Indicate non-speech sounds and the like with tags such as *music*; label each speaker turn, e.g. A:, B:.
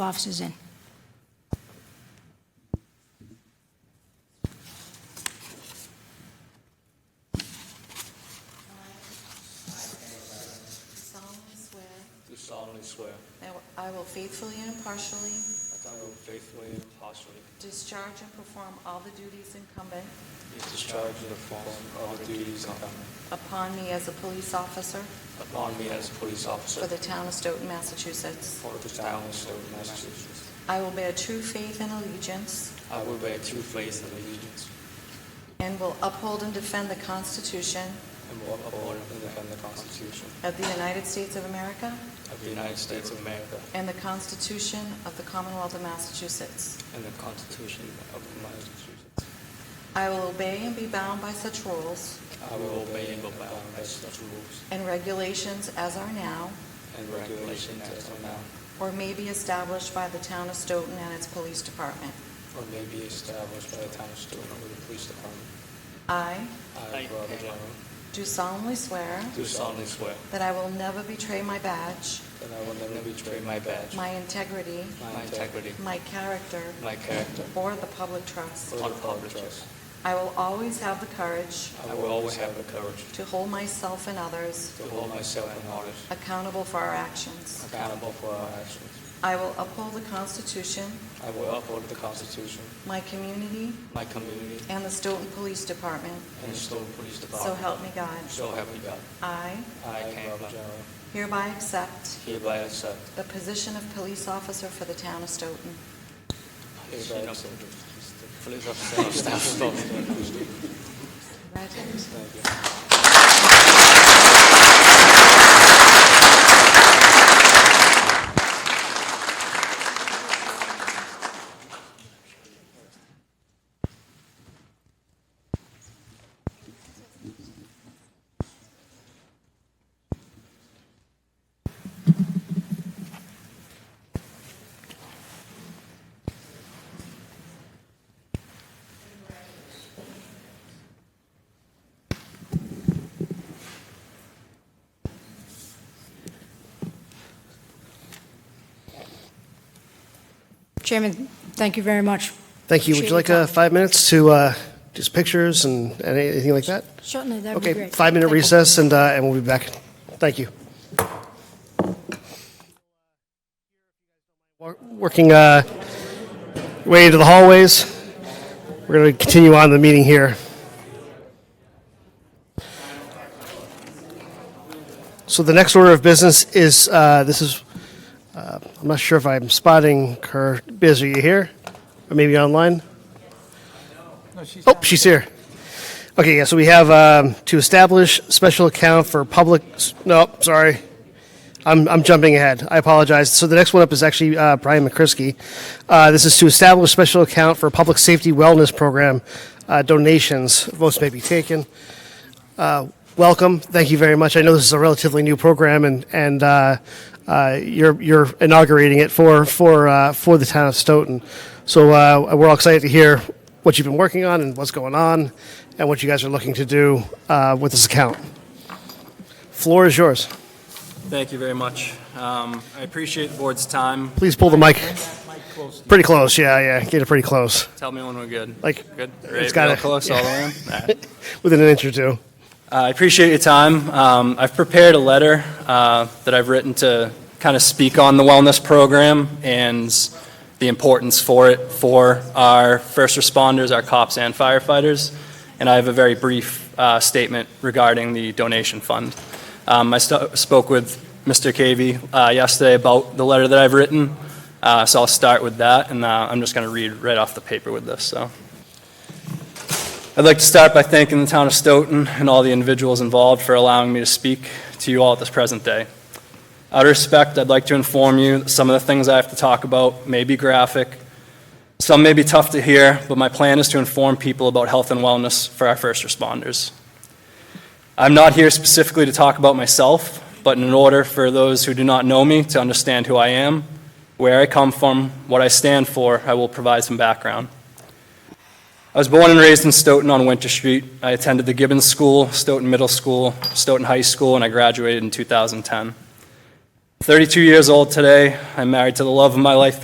A: officers in.
B: solemnly swear
C: Do solemnly swear
B: that I will faithfully and impartially
C: that I will faithfully and impartially
B: discharge and perform all the duties incumbent
C: discharge and perform all the duties incumbent
B: upon me as a police officer
C: upon me as a police
B: for
C: officer
B: the town of Stoughton, Massachusetts.
C: for the town of Stoughton, Massachusetts.
B: I will bear true faith and allegiance
C: I will bear true faith and allegiance
B: and will uphold and defend the Constitution
C: and will uphold and defend the Constitution
B: of the United States of America
C: of the United States of America
B: and the Constitution of the Commonwealth of Massachusetts.
C: and the Constitution of the Massachusetts.
B: I will obey and be bound by such rules
C: I will obey and abide by such rules
B: and regulations as are now
C: and regulations as are now
B: or may be established by the town of Stoughton and its police department.
C: or may be established by the town of Stoughton or the police department.
B: I
C: I, Robert Jarman,
B: do solemnly swear
C: do solemnly swear
B: that I will never betray my badge,
C: that I will never betray my badge,
B: my integrity,
C: my integrity,
B: my character,
C: my character,
B: or the public trust.
C: or the public trust.
B: I will always have the courage
C: I will always have the courage
B: to hold myself and others
C: to hold myself and others
B: accountable for our actions.
C: accountable for our actions.
B: I will uphold the Constitution,
C: I will uphold the Constitution,
B: my community,
C: my community,
B: and the Stoughton Police Department.
C: and the Stoughton Police
B: So
C: Department.
B: help me God.
C: So help me God.
B: I
C: I, Robert Jarman,
B: hereby accept
C: hereby accept
B: the position of police officer for the town of Stoughton.
C: hereby accept Police officer of Staff Stoughton.
B: Congratulations.
C: Thank you.
A: Chairman, thank you very much.
D: Thank you. Would you like
A: Appreciate your
D: uh,
A: time.
D: five minutes to uh, just pictures and and anything like that?
A: Certainly, that would be great.
D: Okay, five-minute
A: Thank you.
D: recess, and uh, and we'll be back. Thank you. Wor- Working uh, way into the hallways, we're going to continue on the meeting here. So the next order of business is, uh, this is, uh, I'm not sure if I'm spotting her. Biz, are you here? Or maybe online? Oh, she's here. Okay, yeah, so we have um, to establish special account for public, no, sorry. I'm, I'm jumping ahead. I apologize. So the next one up is actually uh, Brian McCrisky. Uh, this is to establish special account for public safety wellness program uh, donations. Votes may be taken. Uh, welcome. Thank you very much. I know this is a relatively new program, and and uh, uh, you're you're inaugurating it for for uh, for the town of Stoughton. So uh, we're all excited to hear what you've been working on and what's going on, and what you guys are looking to do uh, with this account. Floor is yours.
E: Thank you very much. Um, I appreciate the board's time.
D: Please pull the mic.
E: Close.
D: Pretty close, yeah, yeah. Get it pretty close,
E: Tell me when we're good.
D: like *laughs*
E: Good?
D: It's
E: Right,
D: gotta-
E: real close all the way in? All right.
D: within an inch or two.
E: Uh, I appreciate your time. Um, I've prepared a letter uh, that I've written to kind of speak on the wellness program and the importance for it for our first responders, our cops, and firefighters. And I have a very brief uh, statement regarding the donation fund. Um, I st- spoke with Mr. Cavey uh, yesterday about the letter that I've written, uh, so I'll start with that, and uh, I'm just going to read right off the paper with this. So. I'd like to start by thanking the town of Stoughton and all the individuals involved for allowing me to speak to you all at this present day. Out of respect, I'd like to inform you that some of the things I have to talk about may be graphic, some may be tough to hear, but my plan is to inform people about health and wellness for our first responders. I'm not here specifically to talk about myself, but in order for those who do not know me to understand who I am, where I come from, what I stand for, I will provide some background. I was born and raised in Stoughton on Winter Street. I attended the Gibbons School, Stoughton Middle School, Stoughton High School, and I graduated in 2010. 32 years old today, I'm married to the love of my life,